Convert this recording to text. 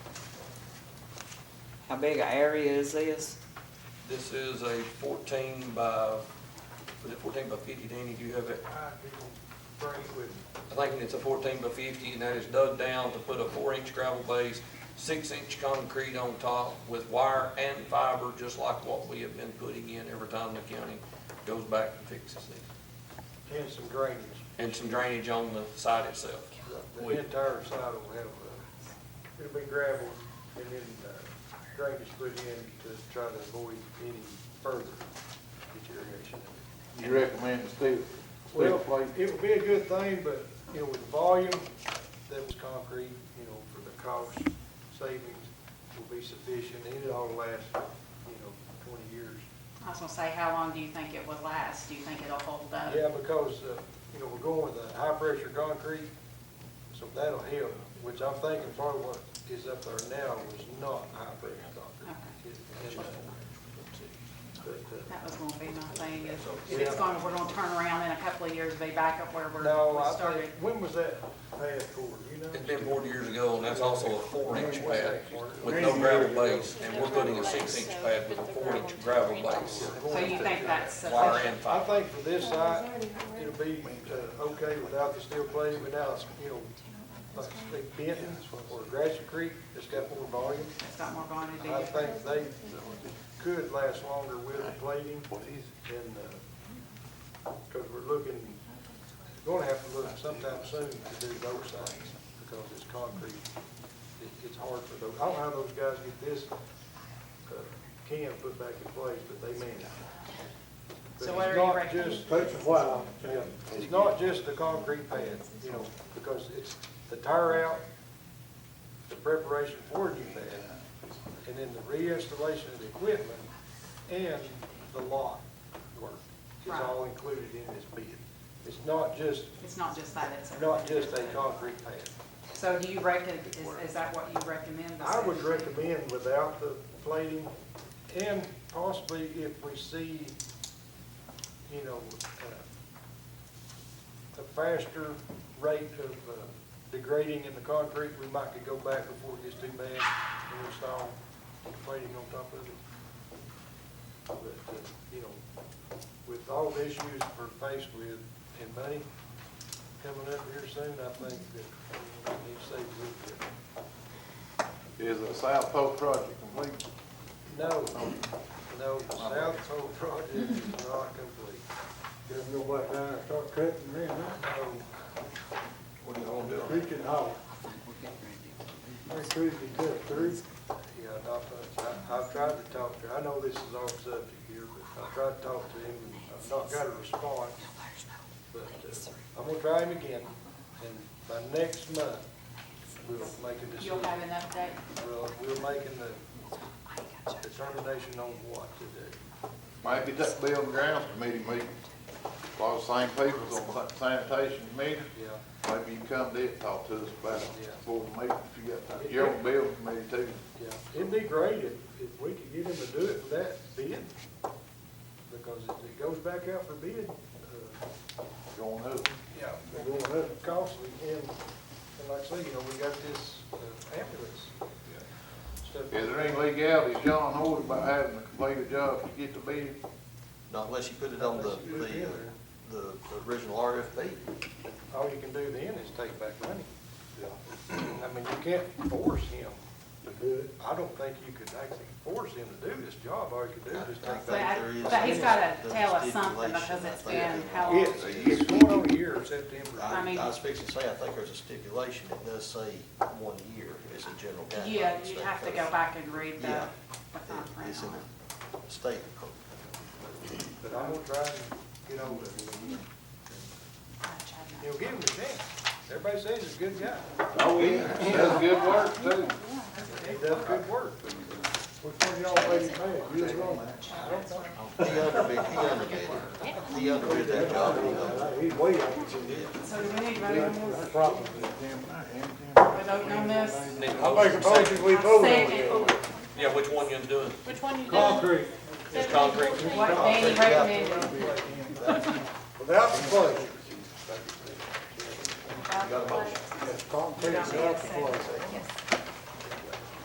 How big a area is this? This is a fourteen by, was it fourteen by fifty, Danny, do you have it? I didn't bring it with me. I think it's a fourteen by fifty, and that is dug down to put a four-inch gravel base, six-inch concrete on top with wire and fiber, just like what we have been putting in every time the county goes back and fixes it. and some drainage. And some drainage on the site itself. The We- entire side will have, uh, it'll be gravel and then uh, drainage put in to try to avoid any further deterioration. You recommend steel, steel Well, plate? it would be a good thing, but, you know, with the volume that was concrete, you know, for the cost savings will be sufficient. And it all last, you know, twenty years. I was gonna say, how long do you think it would last? Do you think it'll hold up? Yeah, because, uh, you know, we're going with a high-pressure concrete, so that'll help, which I'm thinking part of what is up there now was not high-pressure concrete. It's- it's, uh, but, That was gonna be my thing, is if Yeah. it's going, we're gonna turn around in a couple of years, be back up where uh, we're, No, we I started. think, when was that passed for, you know? It's been forty years ago, and that's also a four-inch pad with no gravel base, and we're putting a six-inch pad with a four-inch gravel base, So you think that's wire sufficient? and I fiber. think for this site, it'll be, uh, okay without the steel plate, without, you know, like, say Benton or Gratiot Creek, it's got more volume. It's got more going to do. I think they could last longer with the plating and, because uh, we're looking, gonna have to look sometime soon to do those things because it's concrete. It, it's hard for those, I don't know how those guys get this, uh, can put back in place, but they mean it. But So what it's are you not reckoning? just- Takes a while. yeah, It's not just the concrete pad, you know, because it's the tire out, the preparation for a new pad, and then the reinstallation of the equipment and the lot work is Right. all included in this bid. It's not just, It's not just that, it's not everything. just a concrete pad. So do you reckon, is, is that what you recommend? the I would city do? recommend without the plating, and possibly if we see, you know, uh, a faster rate of uh, degrading in the concrete, we might could go back before it gets too bad and install plating on top of it. But, uh, you know, with all the issues we're faced with in money coming up here soon, I think that we need to save a little bit. Is the South Pole project complete? No, no, the South Pole project is not complete. Just go back down and start cutting me, huh? No, What are you gonna do? Creek and Hollow. That creek is cut through. yeah, not much. I, I've tried to talk to, her. I know this is off subject here, but I've tried to talk to him, and I've not got a response. But uh, I'm gonna try him again, and by next month, we'll make a decision. You'll have an update? We'll, we're making the determination on what to do. Maybe that building grounds committee meeting, a lot of same people's on sanitation committee. Yeah, Maybe you can come there and talk to us about it before the meeting, if you got time. You're on the building committee too. yeah. It'd be great if, if we could get him to do it for that bid, because if it goes back out for bid, uh, Going up. Yeah, they're going up costly, and, and like I say, you know, we got this uh, ambulance stuff. Is there any legalities, John, hold about having to complete a job to get the bid? Not unless you put it on the, the, the original RFP. All you can do then is take back money. I mean, you can't force him to do it. I don't think you could actually force him to do this job, all you could do is just take But back. I- there is- But he's gotta there's a tell us something stipulation, because it's I think. been how long? It's, it's going on a year, September. I I, mean- I was fixing to say, I think there's a stipulation, it does say one year as a general guideline. Yeah, you'd have to go back and read the, Yeah. the It- conference. It's in the state code. But I'm gonna try and get over it. You know, give him a chance. Everybody says he's a good guy. Oh, yeah. That's good work too. He does good work. Which one y'all made it mad? You was wrong. He underbid, he underbid, it. he underbid that job, you know. Uh, He's way out of it. So do we need to vote on this? Problem. We're voting on this? Need I a make a motion, second. motion, we vote on it. Second, Yeah, which one you gonna do? Which one you doing? Concrete, It's concrete. what Danny recommended. without the plate. Got a motion. Concrete, without the plate. Yes.